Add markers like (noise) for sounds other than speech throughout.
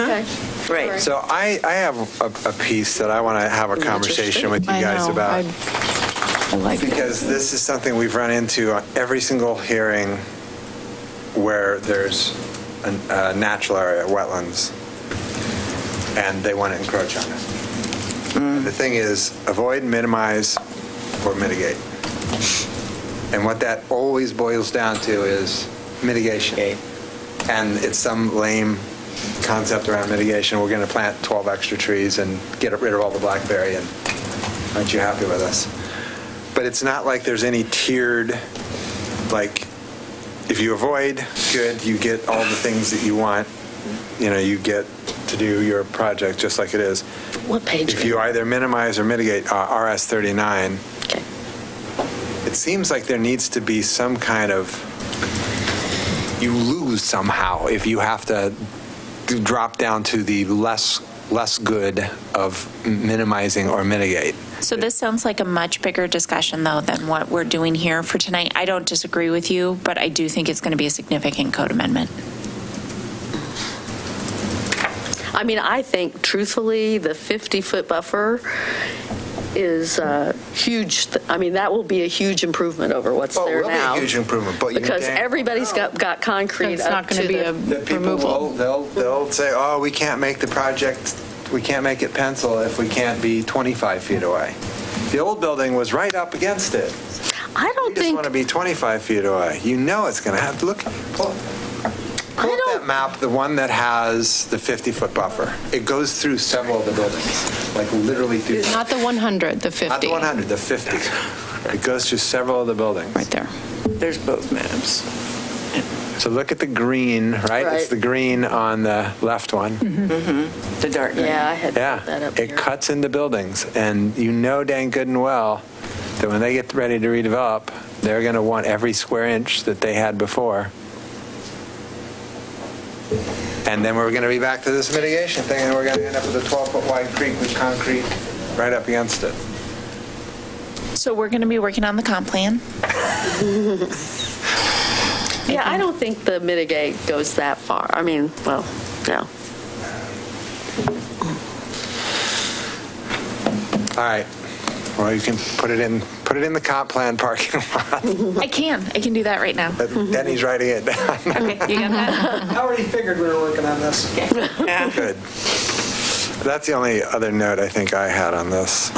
Okay. Sorry. Right. So I, I have a, a piece that I want to have a conversation with you I guys know. about. I- I like it. Because this is something we've run into on every single hearing where there's an- a natural area, wetlands, and they want to encroach on it. Mm. And The thing is, avoid, minimize, or mitigate. And what that always boils down to is mitigation. And it's some lame concept around mitigation, we're going to plant 12 extra trees and get rid of all the blackberry, and aren't you happy with us? But it's not like there's any tiered, like, if you avoid, good, you get all the things that you want. You know, you get to do your project just like it is. What page? If you either minimize or mitigate uh, RS 39, Okay. it seems like there needs to be some kind of, you lose somehow if you have to d- drop down to the less, less good of minimizing or mitigate. So this sounds like a much bigger discussion, though, than what we're doing here for tonight. I don't disagree with you, but I do think it's going to be a significant code amendment. I mean, I think truthfully, the 50-foot buffer is a huge, th- I mean, that will be a huge improvement over what's Oh, it there will be a now. huge improvement, but you Because dang- everybody's got, got concrete It's up not to going to be a the. that people will, removal. they'll, they'll say, oh, we can't make the project, we can't make it pencil if we can't be 25 feet away. The old building was right up against it. I You don't just think, want to be 25 feet away. You know it's going to have, look, pull pull up that don't- map, the one that has the 50-foot buffer. It goes through several of the buildings, like literally through, Not the 100, the 50. not the 100, the 50. It goes through several of the buildings. Right there. There's both maps. So look at the green, right? Right. It's the green on the left one. The dark green. yeah, I had put that Yeah, up it here. cuts into buildings, and you know dang good and well that when they get ready to redevelop, they're going to want every square inch that they had before. And then we're going to be back to this mitigation thing, and we're going to end up with a 12-foot wide creek with concrete right up against it. So we're going to be working on the comp plan. Yeah, I don't think the mitigate goes that far. I mean, well, no. All right, well, you can put it in, put it in the comp plan parking (laughs) (laughs) lot. I can, I can do that right now. Denny's writing (laughs) it down. Okay, you got that? I already figured we were working on this. Good. That's the only other note I think I had on this.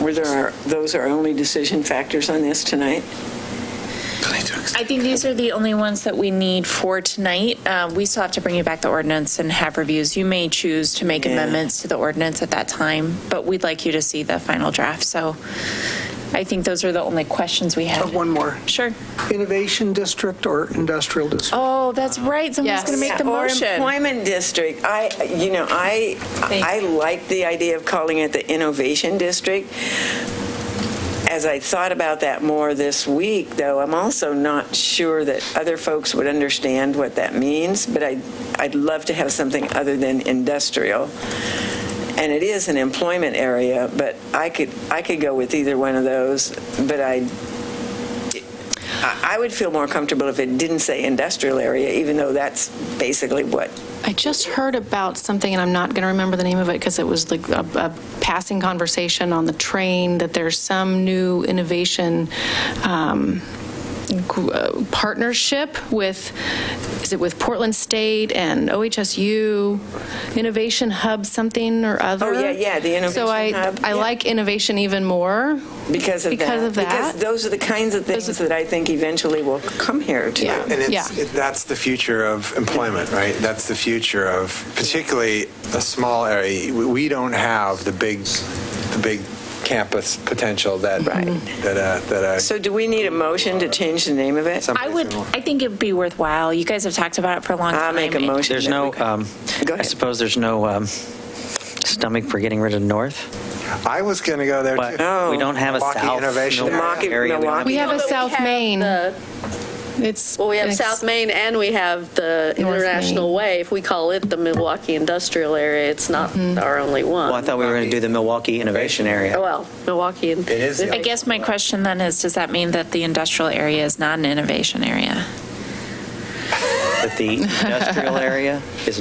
Were there, our- those are only decision factors on this tonight? I think these are the only ones that we need for tonight. Uh, We still have to bring you back the ordinance and have reviews. You may choose to make Yeah. amendments to the ordinance at that time, but we'd like you to see the final draft. So I think those are the only questions we have. One more. Sure. Innovation District or Industrial District? Oh, that's right. Someone's Yes. going to make the Or motion. employment district. I, you know, I, I like the idea of calling it the innovation district. As I thought about that more this week, though, I'm also not sure that other folks would understand what that means, but I, I'd love to have something other than industrial. And it is an employment area, but I could, I could go with either one of those, but I, I I would feel more comfortable if it didn't say industrial area, even though that's basically what I just heard about something, and I'm not going to remember the name of it because it was like a, a passing conversation on the train, that there's some new innovation um, gr- uh, partnership with, is it with Portland State and OHSU, Innovation Hub something or other? yeah, yeah, the Innovation Hub, So I, I yeah. like innovation even more. Because of Because that. of that. Because those are the kinds of things that I think eventually will come here to. Yeah. And it's, it- that's the future of employment, right? That's the future of, particularly a small area. We- We don't have the big, the big campus potential that, that, Right. uh, that, uh, So do we need a motion to change the name of it? some I would, reason- I think it'd be worthwhile. You guys have talked about it for a long time. I'll make a It- motion. There's that no, we- um, Go I ahead. suppose there's no um, stomach for getting rid of north, I was going to go there but too. we don't have a Milwaukee south. Innovation Milwaukee Area. area. We don't have- We have No, a but we South have Main. the- It's. Well, we have it's- South Main and we have the North International Main. Way. If we call it the Milwaukee Industrial Area, it's not Mm-hmm. our only one. Well, I thought we were going to do the Milwaukee Innovation Area. Oh, Well, Milwaukee. and- It is the I guess my question then is, does that mean that the industrial area is not an innovation area? But the industrial area is